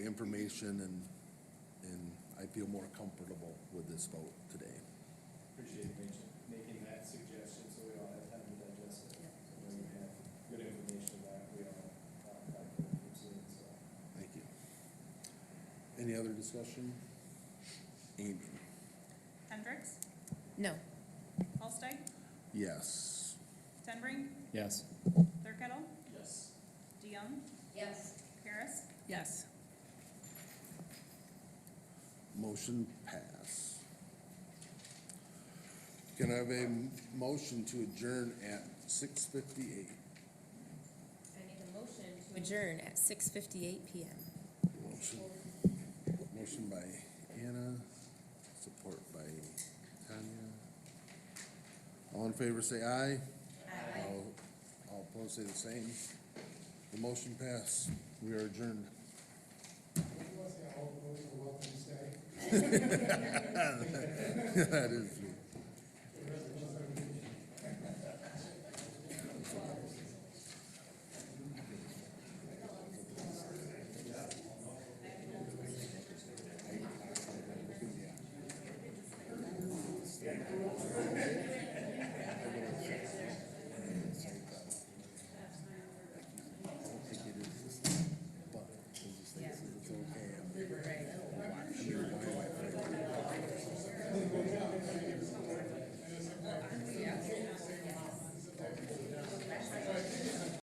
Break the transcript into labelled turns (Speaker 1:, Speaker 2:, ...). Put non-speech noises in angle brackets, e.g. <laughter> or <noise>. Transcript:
Speaker 1: information and, and I feel more comfortable with this vote today.
Speaker 2: Appreciate making, making that suggestion, so we all have time to digest it. So now you have good information that we all, uh, got from the museum, so.
Speaker 1: Thank you. Any other discussion? Amy?
Speaker 3: Hendricks,
Speaker 4: No.
Speaker 3: Holsteig,
Speaker 1: Yes.
Speaker 3: Tenbrink,
Speaker 5: Yes.
Speaker 3: Thirkettle,
Speaker 2: Yes.
Speaker 3: DeYoung,
Speaker 4: Yes.
Speaker 3: Paris,
Speaker 4: Yes.
Speaker 1: Motion pass. Can I have a m- motion to adjourn at six fifty-eight?
Speaker 4: I make a motion to adjourn at six fifty-eight PM.
Speaker 1: Motion, motion by Anna, support by Tanya. All in favor, say aye. Aye. All opposed, say the same. The motion passed. We are adjourned. <laughs> That is true.